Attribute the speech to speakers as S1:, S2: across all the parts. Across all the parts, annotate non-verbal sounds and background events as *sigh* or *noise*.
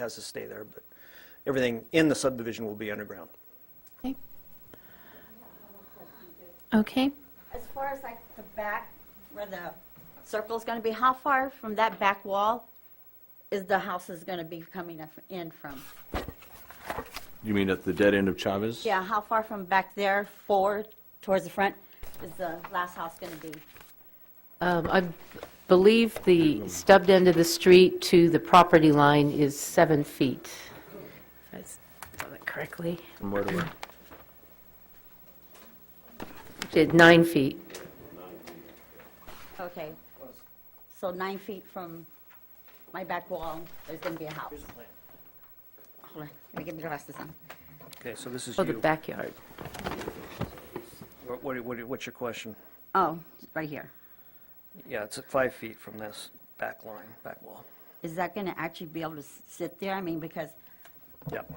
S1: has to stay there, but everything in the subdivision will be underground.
S2: Okay. Okay,
S3: As far as like the back, where the circle's gonna be, how far from that back wall is the house is gonna be coming af- in from?
S4: You mean at the dead end of Chavez?
S3: Yeah, how far from back there forward towards the front is the last house gonna be?
S5: Um, I believe the stubbed end of the street to the property line is seven feet. If I saw that correctly.
S4: From where to where?
S5: Did Nine feet.
S3: Okay. So nine feet from my back wall, there's gonna be a house. Hold on, let me get my glasses on.
S1: Okay, so this is
S5: Oh, the
S1: you.
S5: backyard.
S1: What- what- what- What's your question?
S3: Oh, right here.
S1: Yeah, it's at five feet from this back line, back wall.
S3: Is that gonna actually be able to s- sit there? I mean, because
S1: Yep.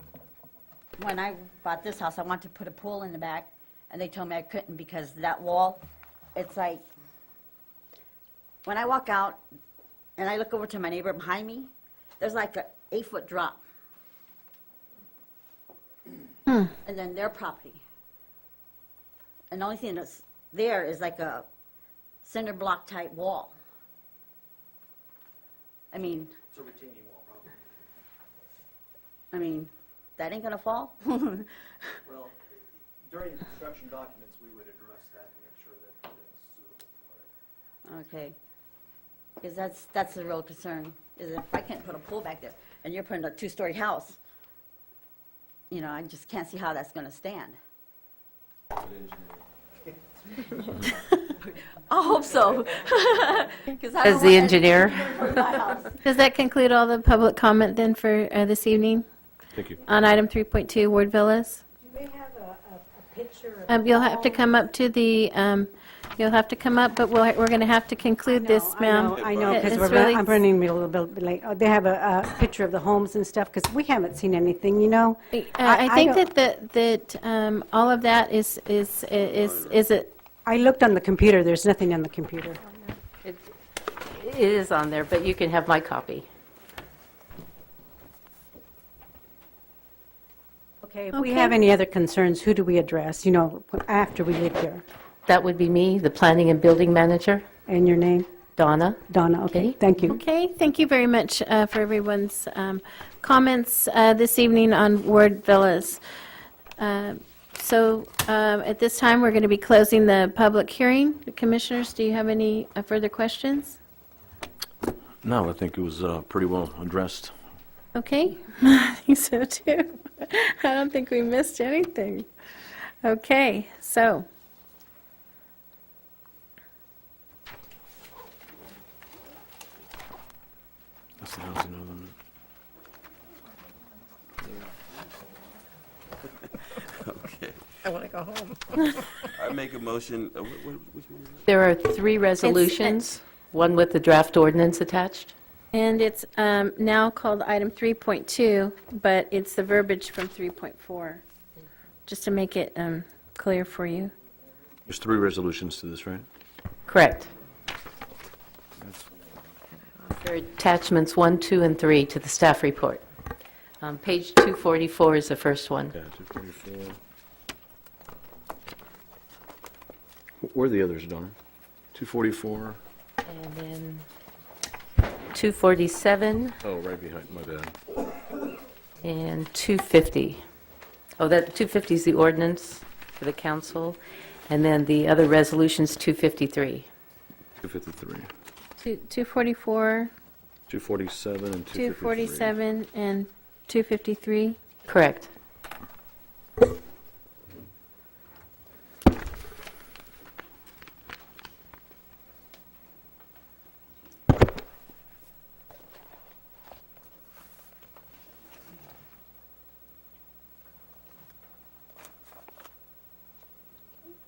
S3: when I bought this house, I wanted to put a pool in the back, and they told me I couldn't because that wall, it's like, when I walk out and I look over to my neighbor behind me, there's like a eight-foot drop. And then their property. And the only thing that's there is like a cinder block type wall. I mean. It's a retaining wall, probably. I mean, that ain't gonna fall? *laughs*
S1: Well, during construction documents, we would address that and make sure that it's suitable for it.
S3: Okay. Because that's, that's the real concern, is if I can't put a pool back there, and you're putting a two-story house, you know, I just can't see how that's gonna stand. *laughs* I hope so. *laughs*
S5: As the engineer,
S2: does that conclude all the public comment then for uh, this evening
S4: Thank you.
S2: on item 3.2, Ward Villas?
S6: Do we have a, a a picture of?
S2: Um, You'll have to come up to the, um, you'll have to come up, but we'll- we're going to have to conclude this, ma'am.
S6: I know, because
S2: It's
S6: we're,
S2: really-
S6: run- I'm running a little bit late. Oh, They have a, a picture of the homes and stuff, because we haven't seen anything, you know?
S2: Uh, I think
S6: don't-
S2: that, that, that um, all of that is, is, is, is it,
S6: I looked on the computer, there's nothing on the computer.
S5: it it is on there, but you can have my copy.
S6: Okay, if we
S2: Okay.
S6: have any other concerns, who do we address, you know, after we leave here?
S5: That would be me, the planning and building manager,
S6: And your name?
S5: Donna.
S6: Donna, okay,
S5: Okay.
S6: thank you.
S2: okay, thank you very much uh, for everyone's um, comments uh, this evening on Ward Villas. Um, So um, at this time, we're going to be closing the public hearing. Commissioners, do you have any uh, further questions?
S4: No, I think it was uh, pretty well addressed.
S2: Okay, *laughs* I think so too. I don't think we missed anything. Okay, so.
S4: That's the housing element.
S7: I make a motion, uh, wh- wh- which one is
S5: There are three resolutions, one with the draft ordinance attached.
S2: And it's um, now called item 3.2, but it's the verbiage from 3.4, just to make it um, clear for you.
S4: There's three resolutions to this, right?
S5: Correct. There are attachments one, two, and three to the staff report. Um, Page 244 is the first one.
S4: Yeah, 244. Wh- Where are the others, Donna? 244?
S5: And then 247
S4: Oh, right behind, my bad.
S5: and 250. Oh, that, 250 is the ordinance for the council, and then the other resolution's 253.
S4: 253.
S2: Two- 244,
S4: 247 and 253.
S2: 247, and 253.
S5: Correct.
S4: Were you, were you moving?
S7: it? I was.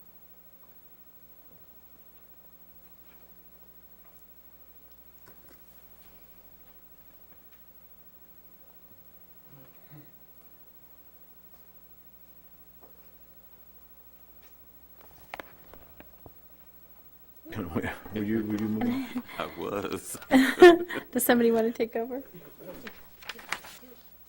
S2: Does somebody want to take over?